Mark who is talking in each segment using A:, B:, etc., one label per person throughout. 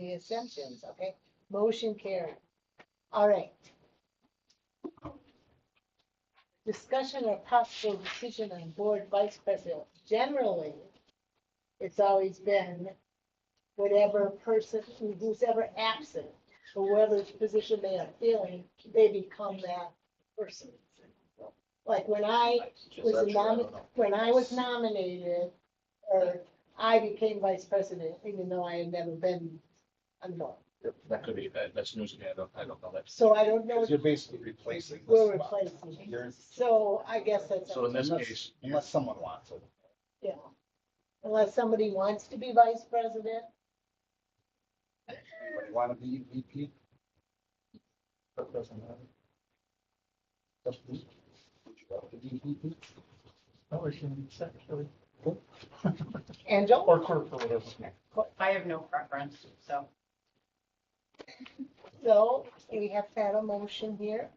A: any exemptions, okay? Motion carried. All right. Discussion or possible decision on board vice president. Generally, it's always been whatever person, who's ever absent, whoever's position they are filling, they become that person. Like when I was
B: Is that true? I
A: nomi-
B: don't know.
A: when I was nominated, or I became vice president, even though I had never been on the board.
B: That could be, that- that's news to me, I don't, I don't know that.
A: So I don't know,
C: Because
A: if
C: you're basically replacing. the
A: we're
C: spot.
A: replacing.
C: You're-
A: So I guess that's,
B: So in this
C: Unless-
B: case,
C: Unless someone wants it.
A: yeah. Unless somebody wants to be vice president,
C: Anybody Want to be VP? That doesn't matter. Just me. Would you like to be VP?
D: Oh, it's gonna be secretary
A: Angel,
D: or clerk or whatever.
E: I have no preference, so.
A: so we have had a motion here.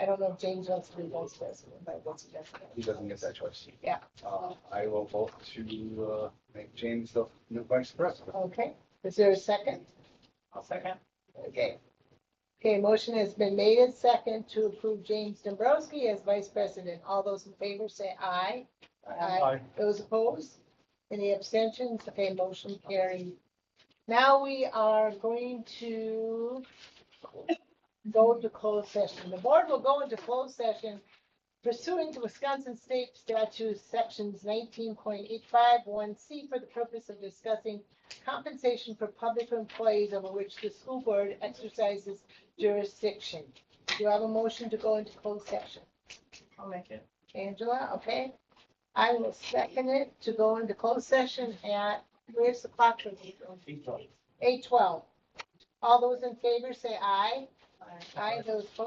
A: I don't know if James wants to be vice president, but what's the best?
C: He doesn't get that choice.
A: Yeah.
C: Uh, I will vote to, uh, make James the new vice president.
A: Okay, is there a second?
E: I'll second.
A: Okay. Okay, motion has been made and second to approve James Dombrowski as vice president. All those in favor say aye.
D: Aye.
A: Those opposed? Any abstentions? Okay, motion carried. Now we are going to go into closed session. The board will go into closed session pursuant to Wisconsin State Statute Sections nineteen point eight five one C for the purpose of discussing compensation for public employees over which the school board exercises jurisdiction. Do you have a motion to go into closed session?
E: I'll make it.
A: Angela, okay? I will second it to go into closed session at, where's the clock? Eight twelve. All those in favor say aye. Aye, those opposed